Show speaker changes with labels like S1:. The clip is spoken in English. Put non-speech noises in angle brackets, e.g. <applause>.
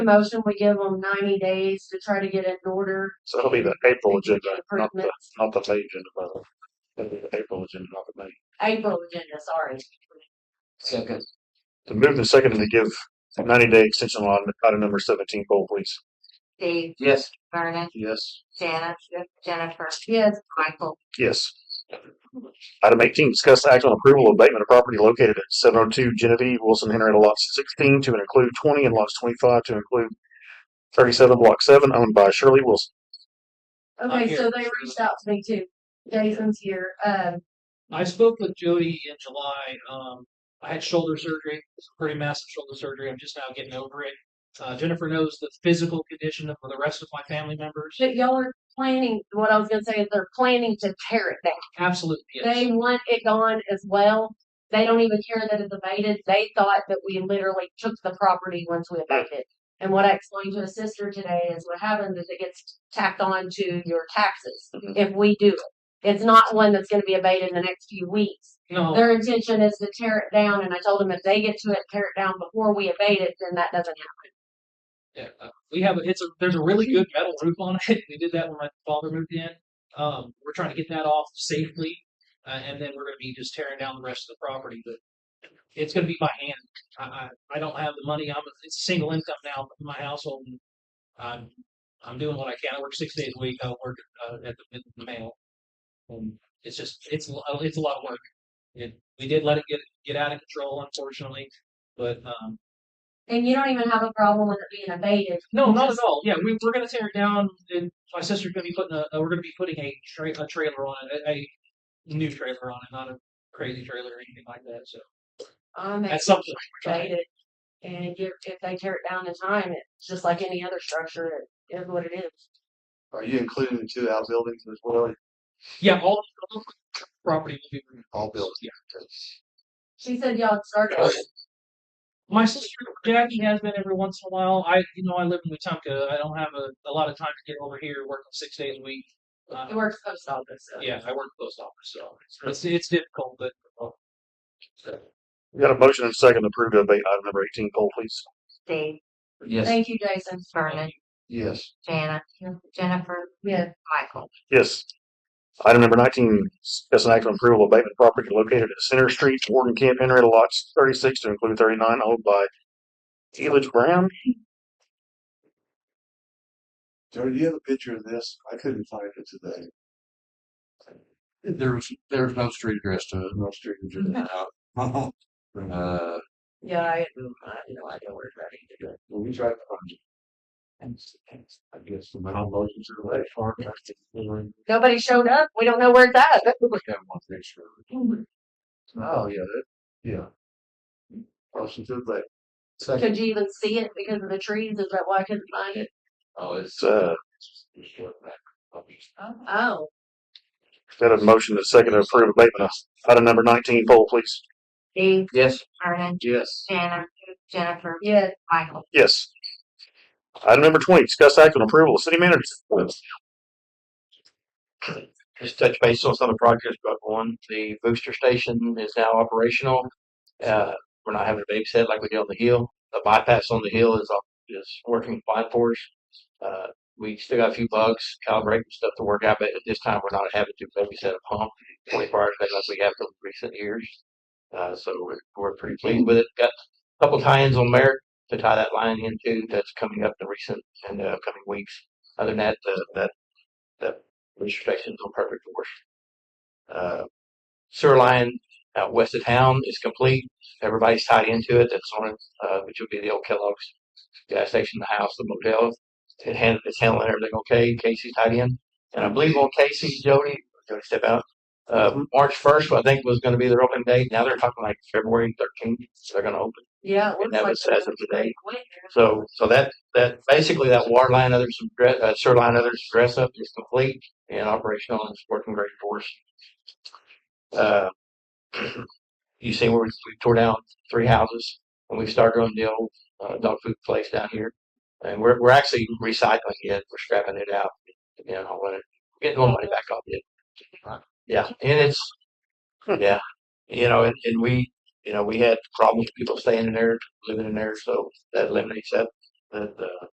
S1: Motion, we give them ninety days to try to get it in order.
S2: So it'll be the April agenda, not the,
S1: Improvements.
S2: not the May agenda, brother. It'll be the April agenda, not the May.
S1: April agenda, sorry.
S3: Second.
S2: To move the second to give ninety day extension on item number seventeen, poll please.
S4: Dave,
S3: Yes.
S4: Vernon,
S2: Yes.
S4: Janice, Jennifer,
S1: Yes,
S4: Michael,
S2: Yes. Item eighteen, discuss act on approval of abatement of property located at seven oh two Genevieve Wilson Henrietta lots sixteen to include twenty and lots twenty five to include thirty-seven block seven owned by Shirley Wilson.
S3: I'm
S1: okay,
S3: here.
S1: so they reached out to me too. Jason's here, um,
S5: I spoke with Jody in July. Um, I had shoulder surgery, It's a pretty massive shoulder surgery. I'm just now getting over it. Uh, Jennifer knows the physical condition of the rest of my family members.
S1: but y'all are planning, what I was gonna say is they're planning to tear it down.
S5: Absolutely, yes.
S1: They want it gone as well. They don't even care that it's abated. They thought that we literally took the property once we abated. it. And what I explained to a sister today is what happens is it gets tacked on to your taxes
S5: Mm-hmm.
S2: Mhm.
S1: if we do it. It's not one that's gonna be abated in the next few weeks.
S5: No,
S1: Their intention is to tear it down, and I told them if they get to it, tear it down before we abate it, then that doesn't happen.
S5: yeah, uh, we have, a- it's a, there's a really good metal roof on it. We did that when my father moved in. Um, we're trying to get that off safely. Uh, and then we're gonna be just tearing down the rest of the property, but it's gonna be by hand. I, I, I don't have the money. I'm, a- it's a single income now in my household. and I'm, I'm doing what I can. I work six days a week. I work uh, at the, at the mail. And it's just, it's, a lo- it's a lot of work. It, we did let it get, get out of control, unfortunately, but, um,
S1: And you don't even have a problem with it being abated.
S5: no, not at all. Yeah, we, we're gonna tear it down, and my sister's gonna be putting a, uh, we're gonna be putting a tra- a trailer on it, a, a new trailer on it, not a crazy trailer or anything like that. So
S1: Um,
S5: that's something. we're trying.
S1: abated. And if, if they tear it down in time, it's just like any other structure, it is what it is.
S6: Are you including the two outbuildings as well?
S5: Yeah, all all the property will be removed.
S6: All buildings.
S5: Yeah.
S1: She said y'all had started.
S5: My sister Jackie has been every once in a while. I, you know, I live in Wetumpka. I don't have a, a lot of time to get over here. Work six days a week.
S1: It
S5: Uh,
S1: works post office. so.
S5: yeah, I work post office, so it's it's difficult, but
S2: We got a motion and second to approve to abate item number eighteen, poll please.
S4: Dave,
S3: Yes.
S1: Thank you, Jason.
S4: Vernon,
S6: Yes.
S4: Janice, Jennifer,
S1: Yeah,
S4: Michael,
S2: Yes. Item number nineteen, discuss an act on approval of abatement property located at Center Street, Warden Camp, Henrietta lots thirty-six to include thirty-nine owned by Elidge Brown.
S6: Jody, do you have a picture of this? I couldn't find it today.
S3: There was, there was no street address to it.
S6: No street address. Well,
S3: <laughs> Uh,
S1: yeah, I, I have no idea where that is.
S6: we tried to find it. I guess the mountain motion to the lake farm. We
S1: Nobody showed up. We don't know where it's at.
S6: have one picture. of it. Oh, yeah, that, yeah. Motion to the lake.
S1: Could you even see it because of the trees? Is that why I couldn't find it?
S6: Oh,
S2: It's, uh,
S1: Oh,
S2: got a motion and second to approve abatement of item number nineteen, poll please.
S4: Dave,
S3: yes.
S4: Vernon,
S6: Yes.
S4: Janice, Jennifer,
S1: yeah,
S4: Michael,
S2: Yes. Item number twenty, discuss act on approval of city manager's appointment.
S7: just touch base on some of the projects, but one, the booster station is now operational. Uh, we're not having a babysit like we did on the hill. The bypass on the hill is op- is working fine for us. Uh, we still got a few bugs, calibrating stuff to work out, but at this time we're not having to babysit a pump twenty-four hours a day like we have in recent years. Uh, so we're, we're pretty pleased with it. Got a couple tie-ins on Merritt to tie that line into that's coming up in recent and uh, coming weeks. Other than that, the, that restrictions on perfect force. Uh, sewer line out west of town is complete. Everybody's tied into it. That's on it, uh, which would be the old Kellogg's gas station, the house, the motel. It hand, it's handling everything okay. Casey's tied in. And I believe on Casey, Jody, Jody step out. Uh, March 1st, I think, was going to be their opening date. Now they're talking like February 13th. They're going to open.
S1: yeah. it looks
S7: And that
S1: like
S7: was
S1: it
S7: as of today.
S1: Quick.
S7: So, so that, that, basically that water line, others, dress- uh, sewer line, others dress up is complete and operational and it's working great for us. Uh, <clears throat> you see where we we tore down three houses and we started on the old, uh, dog food place down here. And we're, we're actually recycling it. We're scrapping it out, you know, let it, getting more money back off it. Yeah, and it's, yeah, you know, and, and we, you know, we had problems with people staying in there, living in there, so that eliminates that. that, uh,